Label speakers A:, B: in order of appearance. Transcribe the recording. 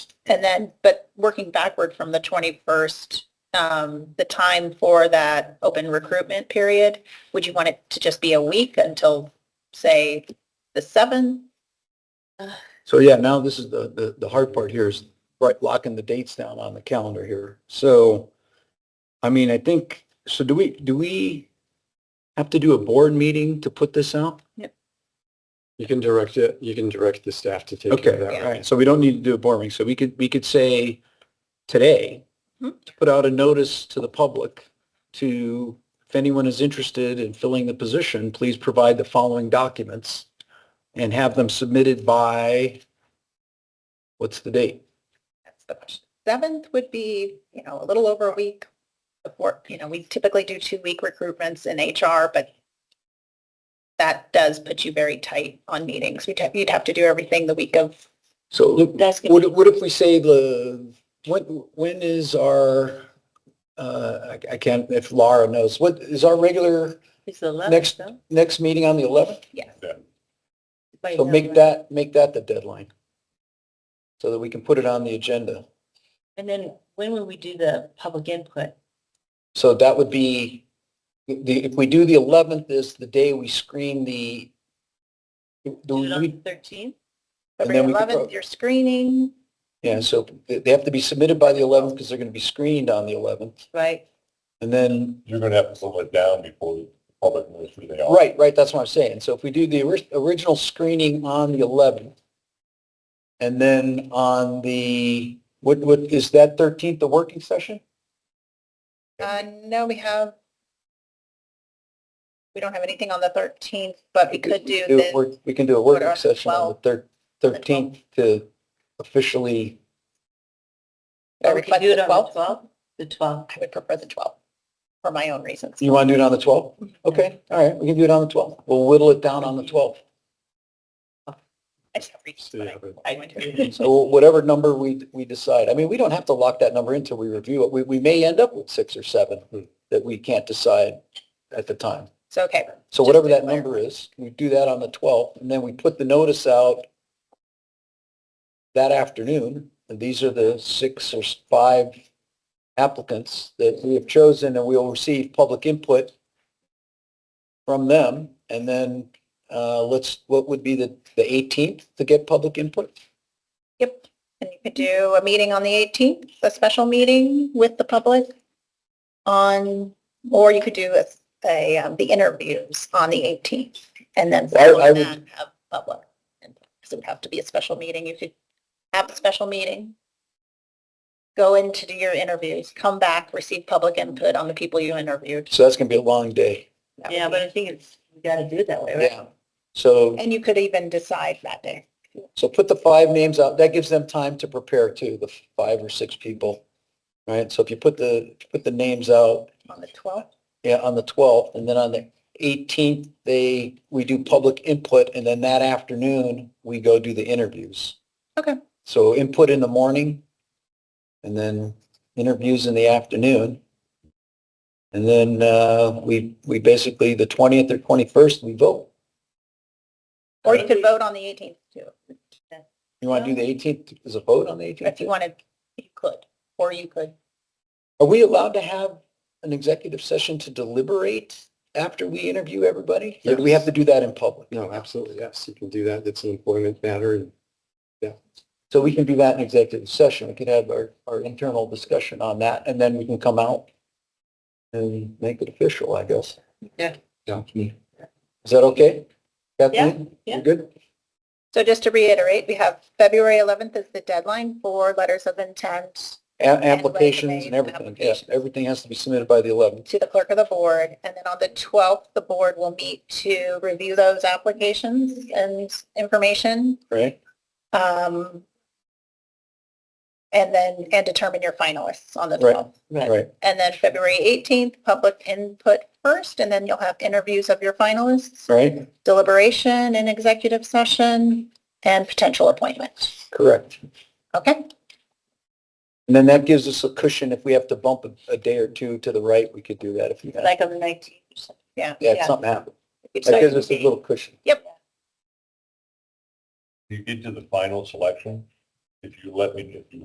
A: And then, but working backward from the 21st, um, the time for that open recruitment period, would you want it to just be a week until, say, the 7th?
B: So yeah, now this is the, the, the hard part here is right, locking the dates down on the calendar here. So, I mean, I think, so do we, do we have to do a board meeting to put this out?
C: You can direct it, you can direct the staff to take care
B: Okay,
C: of that.
B: all right. So we don't need to do a board meeting. So we could, we could say today, to put out a notice to the public to, if anyone is interested in filling the position, please provide the following documents and have them submitted by, what's the date?
A: That's the question. 7th would be, you know, a little over a week before, you know, we typically do two-week recruitments in HR, but that does put you very tight on meetings. You'd have, you'd have to do everything the week of.
B: So
A: That's
B: what, what if we say the, when, when is our, uh, I I can't, if Laura knows, what is our regular
A: It's the
B: Next- next meeting on the 11th?
A: Yes.
B: So make that, make that the deadline. So that we can put it on the agenda.
A: And then when will we do the public input?
B: So that would be, the, if we do the 11th is the day we screen the, do we,
A: 13th?
B: And
A: February
B: then we could
A: 11th,
B: vote.
A: you're screening,
B: yeah, so they they have to be submitted by the 11th because they're going to be screened on the 11th.
A: right?
B: And then
C: You're gonna have to slow it down before the public knows who they are.
B: Right, right, that's what I'm saying. So if we do the ori- original screening on the 11th, and then on the, what, what, is that 13th, the working session?
A: Uh, no, we have, we don't have anything on the 13th, but we could do
B: a
A: the uh,
B: work- We can do a
A: put it
B: working
A: on the
B: session on the thir- 13th to officially.
A: Or we could do it on the 12th?
D: The 12th.
A: I would prefer the 12th for my own reasons.
B: You want to do it on the 12th? Okay, all right, we can do it on the 12th. We'll whittle it down on the 12th.
A: I just have reasons,
C: Yeah,
A: but
C: but-
A: I- I want to-
B: So whatever number we, we decide, I mean, we don't have to lock that number until we review it. We, we may end up with six or seven
C: Hmm.
B: that we can't decide at the time.
A: So, okay,
B: So
A: Just
B: whatever
A: to
B: that number is, we do that on the 12th, and then we put the notice out that afternoon, and these are the six or s- five applicants that we have chosen, and we'll receive public input from them, and then, uh, let's, what would be the, the 18th to get public input?
A: yep. And you could do a meeting on the 18th, a special meeting with the public on, or you could do a, a, um, the interviews on the 18th and then
B: Well, I
A: following
B: would-
A: that have public. And It would have to be a special meeting. You could have a special meeting, go in to do your interviews, come back, receive public input on the people you interviewed.
B: So that's gonna be a long day.
A: That would
D: Yeah,
A: be-
D: but I think it's, we gotta do it that way, right?
B: Yeah. So,
A: And you could even decide that day.
B: so put the five names out, that gives them time to prepare too, the five or six people, right? So if you put the, put the names out,
A: On the 12th?
B: Yeah, on the twelfth, and then on the eighteenth, they, we do public input, and then that afternoon, we go do the interviews.
A: Okay.
B: So input in the morning, and then interviews in the afternoon. And then, uh, we, we basically, the twentieth or twenty-first, we vote.
A: Or you could vote on the 18th too,
B: You want to do the eighteenth, as a vote on the eighteenth?
A: if you wanted, you could, or you could.
B: Are we allowed to have an executive session to deliberate after we interview everybody? Or do we have to do that in public?
C: No, absolutely, yes, you can do that, it's an employment matter, and
B: So we can do that in executive session. We could have our, our internal discussion on that and then we can come out and make it official, I guess.
D: Yeah.
B: Yeah. Is that okay? Kathleen?
D: Yeah, yeah.
B: You good?
A: So just to reiterate, we have February 11th is the deadline for letters of intent
B: A- Applications and
A: resumes,
B: everything. Yeah,
A: applications.
B: everything has to be submitted by the 11th.
A: to the clerk of the board. And then on the 12th, the board will meet to review those applications and information.
B: Right.
A: um, And then, and determine your finalists on the
B: Right.
A: 12th.
B: Right.
A: And then February 18th, public input first, and then you'll have interviews of your finalists.
B: Right.
A: deliberation in executive session and potential appointment.
B: Correct.
A: Okay?
B: And then that gives us a cushion. If we have to bump a, a day or two to the right, we could do that if you, yeah,
D: Like on the 19th or something.
A: Yeah.
B: if something happens. That
A: So-
B: gives us a little cushion.
E: you get to the final selection, if you let me, if you